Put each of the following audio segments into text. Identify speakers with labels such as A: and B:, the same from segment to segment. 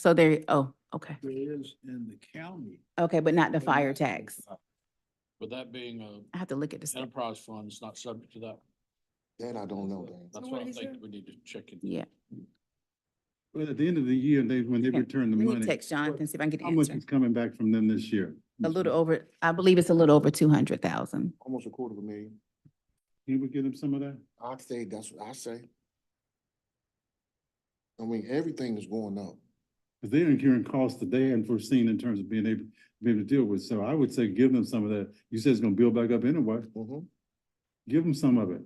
A: So there, oh, okay,
B: There is in the county.
A: okay, but not the fire tax.
B: But that being a
A: I have to look at this.
B: enterprise fund, it's not subject to that.
C: That I don't know, Dan.
B: That's what I think we need to check it.
A: Yeah,
D: But at the end of the year, they, when they
A: Okay.
D: return the
A: let me
D: money,
A: text Jonathan, see if I can get the
D: how much
A: answer.
D: is coming back from them this year?
A: A little over, I believe it's a little over two hundred thousand.
C: Almost a quarter of a million.
D: Can we get them some of that?
C: I say, that's what I say. I mean, everything is going up.
D: Because they're incurring costs that they hadn't foreseen in terms of being able, being able to deal with. So I would say give them some of that. You said it's gonna build back up anyway.
C: Mhm.
D: Give them some of it.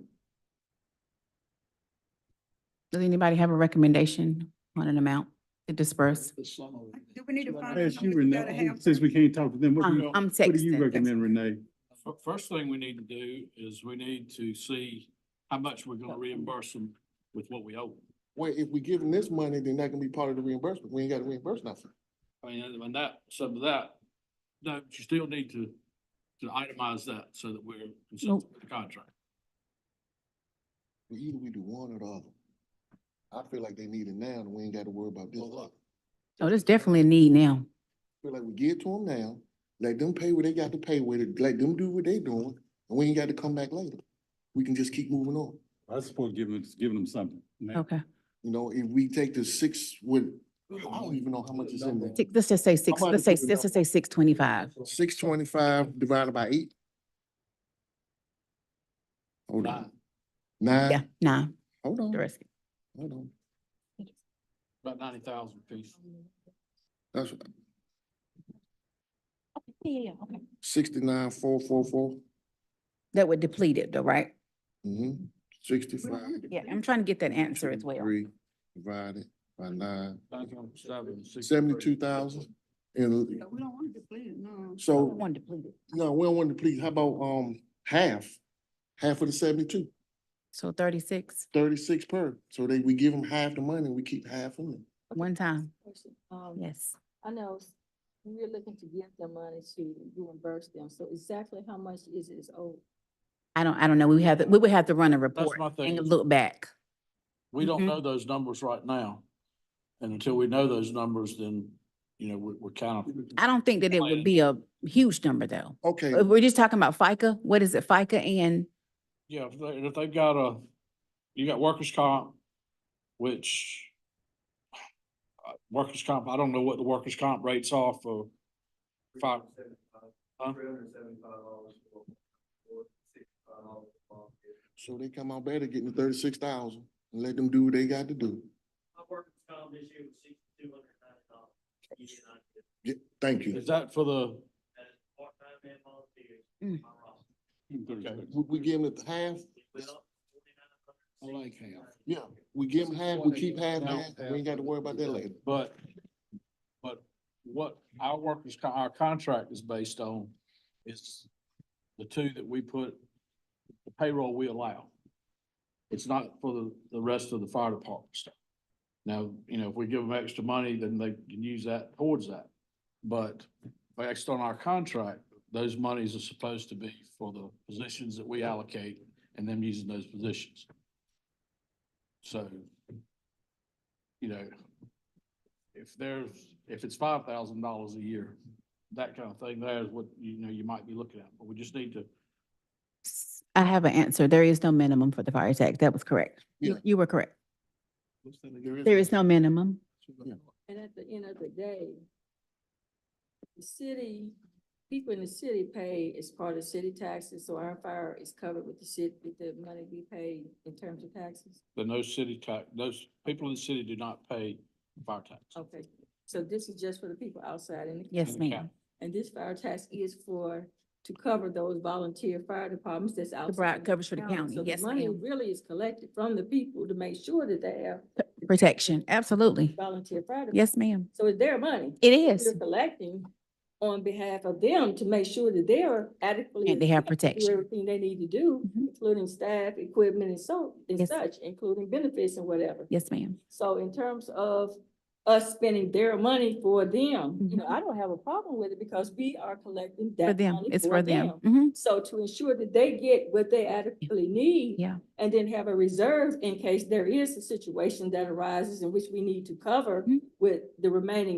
A: Does anybody have a recommendation on an amount to disperse?
B: The sum of it.
E: Do we need to
B: So
E: find
D: I
E: out
D: asked you,
E: how much we gotta
D: Renee,
E: have
D: since we can't talk to them, what do
A: I'm
D: you,
A: I'm
D: what do you
A: texting.
D: recommend, Renee?
B: F- First thing we need to do is we need to see how much we're gonna reimburse them with what we owe.
C: Well, if we give them this money, then that can be part of the reimbursement. We ain't got to reimburse nothing.
B: I mean, and- and that, some of that, no, you still need to, to itemize that so that we're consistent with the contract.
C: Either we do one or the other. I feel like they need it now and we ain't got to worry about this. later.
A: Oh, there's definitely a need now.
C: Feel like we give to them now, let them pay what they got to pay with it, let them do what they doing, and we ain't got to come back later. We can just keep moving on.
D: I support giving, giving them something.
A: Okay,
C: You know, if we take the six with, I don't even know how much is in there.
A: Six- let's just say six,
C: about
A: let's
C: to
A: say,
C: give it
A: let's just say six twenty-five.
C: Six twenty-five divided by eight. Hold on.
A: Yeah,
C: Nine,
A: nah,
C: hold
A: the
C: on,
A: rest.
C: hold on.
B: About ninety thousand piece.
C: That's sixty-nine, four, four, four.
A: That would deplete it though, right?
C: Mm-hmm. Sixty-five.
A: Yeah, I'm trying to get that answer as well.
C: 23 Divided by nine, seventy-two
B: Seventy-two
C: thousand. And
E: Yeah, We don't want to deplete it, no.
A: Oh, I
C: so
A: don't want to deplete it.
C: No, we don't want to deplete. How about, um, half? Half of the 72,
A: So thirty-six,
C: 36 per. So they, we give them half the money, we keep half of it.
F: Okay,
A: one time,
F: question. Um,
A: yes.
F: I know s- we're looking to give them money to reimburse them, so exactly how much is it is owed?
A: I don't, I don't know. We have, to- we would have to run a report
B: my thing.
A: and look back.
B: We don't
A: Mhm.
B: know those numbers right now. And until we know those numbers, then, you know, we're, we're kind of.
A: I don't think that it would
B: Plan.
A: be a huge number though.
C: Okay,
A: If We're just talking about FICA. What is it? FICA and,
B: Yeah, if they, if they've got a, you got workers' comp, which uh, workers' comp, I don't know what the workers' comp rates are for five. Huh?
C: so they come out better getting the thirty-six thousand and let them do what they got to do.
G: My workers' comp this year was sixty-two hundred ninety dollars.
C: Yeah, thank you.
B: Is that for the,
G: That is part-time and volunteers.
A: Mm.
G: My roster.
C: We, we give them the half,
G: We went up to 49.
B: I like how-
C: yeah, we give them half, we keep half, half, we ain't got to worry about that later.
B: but, but what our workers, co- our contract is based on is the two that we put, the payroll we allow. It's not for the, the rest of the fire department stuff. Now, you know, if we give them extra money, then they can use that towards that. But based on our contract, those monies are supposed to be for the positions that we allocate and them using those positions. So, you know, if there's, if it's five thousand dollars a year, that kind of thing, there is what, you know, you might be looking at, but we just need to.
A: s- I have an answer. There is no minimum for the fire tax. That was correct. You,
C: Yeah.
A: you were correct. There is no minimum.
C: Yeah.
F: And at the end of the day, the city, people in the city pay as part of city taxes, so our fire is covered with the city, with the money we pay in terms of taxes.
B: But no city tax, those people in the city do not pay fire tax.
F: Okay, so this is just for the people outside in the.
A: Yes,
B: Okay.
A: ma'am.
F: And this fire tax is for, to cover those volunteer fire departments that's outside.
A: broad
F: of
A: covers for the county.
F: So the
A: Yes,
F: money
A: ma'am.
F: Really is collected from the people to make sure that they have
A: Protection, absolutely.
F: volunteer fire. department.
A: Yes, ma'am.
F: So it's their money.
A: It
F: We're
A: is.
F: collecting on behalf of them to make sure that they're adequately.
A: And they have
F: equipped to do
A: protection.
F: Everything they need to do,
A: Mhm.
F: including staff, equipment and so, and
A: Yes.
F: such, including benefits and whatever.
A: Yes, ma'am.
F: So in terms of us spending their money for them. You know,
A: Mhm.
F: I don't have a problem with it because we are collecting
A: For
F: that
A: them,
F: money
A: it's
F: for
A: for them.
F: them.
A: Mhm.
F: So to ensure that they get what they adequately need.
A: Yeah.
F: And then have a reserve in case there is a situation that arises in which we need to cover
A: Mhm.
F: with the remaining